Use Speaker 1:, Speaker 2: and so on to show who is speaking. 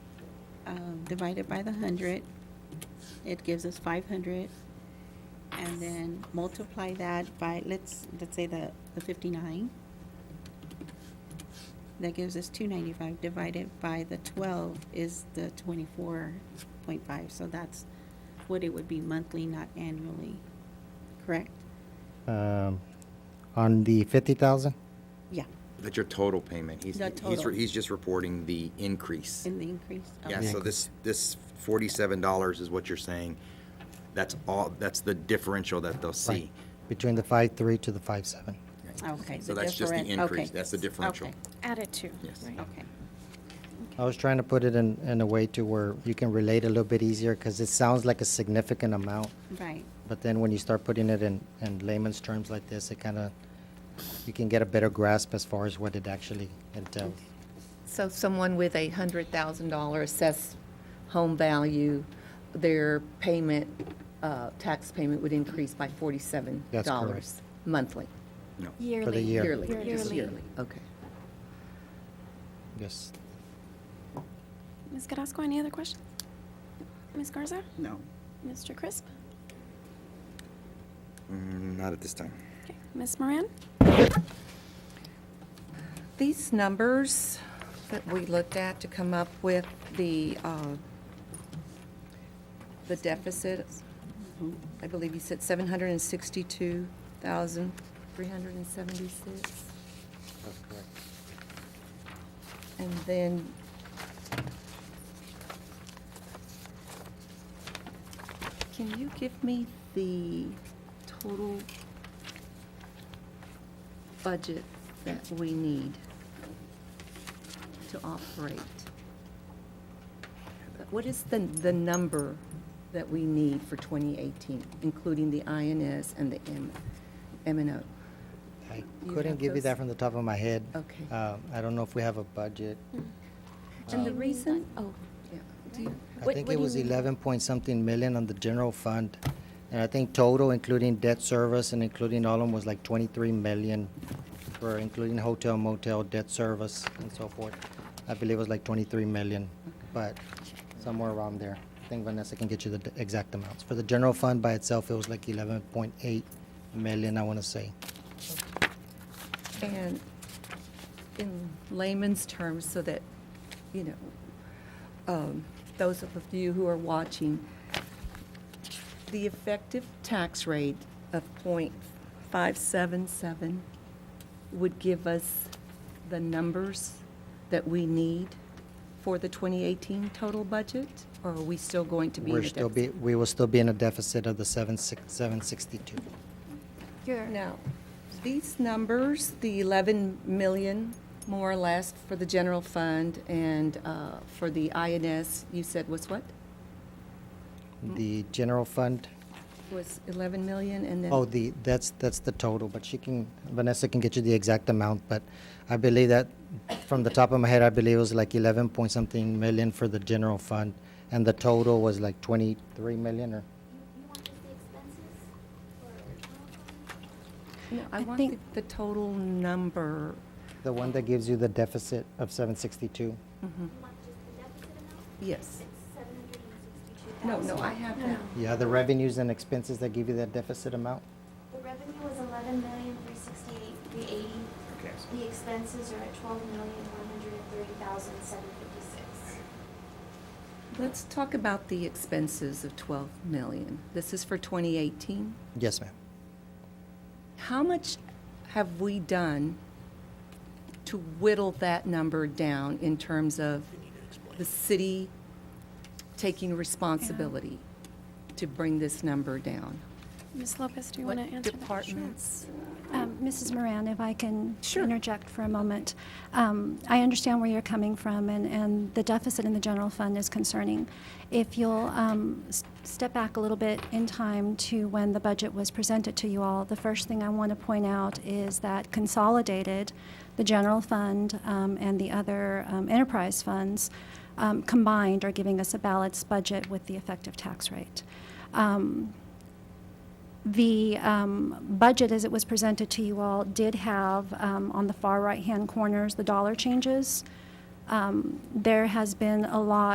Speaker 1: um, divided by the hundred, it gives us five hundred. And then multiply that by, let's, let's say the, the fifty-nine. That gives us two ninety-five divided by the twelve is the twenty-four point five, so that's what it would be monthly, not annually, correct?
Speaker 2: Um, On the 50,000?
Speaker 1: Yeah,
Speaker 3: That's your total payment. He's,
Speaker 1: The
Speaker 3: he's,
Speaker 1: total.
Speaker 3: re- he's just reporting the increase.
Speaker 1: in the increase.
Speaker 3: Yeah,
Speaker 1: Okay.
Speaker 3: so this, this forty-seven dollars is what you're saying. That's all, that's the differential that they'll
Speaker 2: Right.
Speaker 3: see.
Speaker 2: Between the five three to the five seven.
Speaker 1: Okay.
Speaker 3: So
Speaker 1: the
Speaker 3: that's just the
Speaker 1: differen-
Speaker 3: increase.
Speaker 1: okay.
Speaker 3: That's the differential.
Speaker 1: Okay,
Speaker 4: Added to.
Speaker 3: Yes.
Speaker 4: right?
Speaker 1: Okay,
Speaker 2: I was trying to put it in, in a way to where you can relate a little bit easier because it sounds like a significant amount.
Speaker 1: right.
Speaker 2: But then when you start putting it in, in layman's terms like this, it kind of, you can get a better grasp as far as what it actually entails.
Speaker 5: So someone with a hundred thousand dollar assessed home value, their payment, uh, tax payment would increase by forty-seven
Speaker 2: That's correct.
Speaker 5: dollars monthly,
Speaker 3: No.
Speaker 4: Yearly.
Speaker 2: For the year.
Speaker 5: yearly, just
Speaker 4: Yearly.
Speaker 5: yearly, okay.
Speaker 2: Yes.
Speaker 4: Ms. Carrasco, any other questions? Ms. Garza?
Speaker 6: No.
Speaker 4: Mr. Crisp?
Speaker 3: Mm, Not at this time.
Speaker 4: Okay. Ms. Moran?
Speaker 5: These numbers that we looked at to come up with the, uh, the deficit, I believe you said seven hundred and sixty-two thousand, three hundred and seventy-six.
Speaker 2: That's correct.
Speaker 5: And then can you give me the total budget that we need to operate? What is the, the number that we need for 2018, including the INS and the M, M and O?
Speaker 2: I
Speaker 5: You
Speaker 2: couldn't
Speaker 5: have
Speaker 2: give you
Speaker 5: those?
Speaker 2: that from the top of my head.
Speaker 5: Okay.
Speaker 2: Uh, I don't know if we have a budget.
Speaker 5: And the reason,
Speaker 4: Oh,
Speaker 5: yeah, Um, do you?
Speaker 2: I
Speaker 5: what-
Speaker 2: think
Speaker 5: what
Speaker 2: it
Speaker 5: do you
Speaker 2: was
Speaker 5: mean?
Speaker 2: eleven point something million on the general fund. And I think total, including debt service and including all of them, was like twenty-three million for including hotel motel, debt service and so forth. I believe it was like twenty-three million, but somewhere around there. I think Vanessa can get you the d- exact amounts. For the general fund by itself, it was like eleven point eight million, I want to say.
Speaker 5: And in layman's terms, so that, you know, um, those of you who are watching, the effective tax rate of .577 would give us the numbers that we need for the 2018 total budget? Or are we still going to be in a
Speaker 2: We're still
Speaker 5: deficit?
Speaker 2: be, we will still be in a deficit of the seven six, seven sixty-two.
Speaker 5: Hmm.
Speaker 4: you're.
Speaker 5: Now, these numbers, the 11 million, more or less, for the general fund and uh, for the INS, you said was what?
Speaker 2: The general fund,
Speaker 5: Was 11 million and then?
Speaker 2: Oh, the, that's, that's the total, but she can, Vanessa can get you the exact amount, but I believe that, from the top of my head, I believe it was like eleven point something million for the general fund, and the total was like twenty-three million or,
Speaker 7: You want just the expenses or
Speaker 5: No, I
Speaker 4: I
Speaker 5: want
Speaker 4: think-
Speaker 5: the- the total number.
Speaker 2: the one that gives you the deficit of seven sixty-two.
Speaker 7: you want just the deficit amount?
Speaker 5: Mm-hmm.
Speaker 7: It's
Speaker 5: Yes.
Speaker 7: seven hundred and sixty-two
Speaker 5: No,
Speaker 7: thousand.
Speaker 5: no, I have that.
Speaker 2: Yeah, the revenues and expenses that give you that deficit amount?
Speaker 7: The revenue was eleven million, three sixty-eight, three eighty.
Speaker 3: Okay.
Speaker 7: The expenses are at twelve million, one hundred and thirty thousand, seven fifty-six.
Speaker 5: Let's talk about the expenses of 12 million. This is for 2018?
Speaker 2: Yes, ma'am.
Speaker 5: How much have we done to whittle that number down in terms of the city taking responsibility to bring this number down?
Speaker 4: Ms. Lopez, do you want to answer that?
Speaker 5: departments?
Speaker 8: Um, Mrs. Moran, if I can
Speaker 5: Sure.
Speaker 8: interject for a moment. Um, I understand where you're coming from, and, and the deficit in the general fund is concerning. If you'll um, s- step back a little bit in time to when the budget was presented to you all, the first thing I want to point out is that consolidated, the general fund um, and the other um, enterprise funds um, combined are giving us a balanced budget with the effective tax rate. Um, the um, budget, as it was presented to you all, did have um, on the far right-hand corners the dollar changes. Um, There has been a lot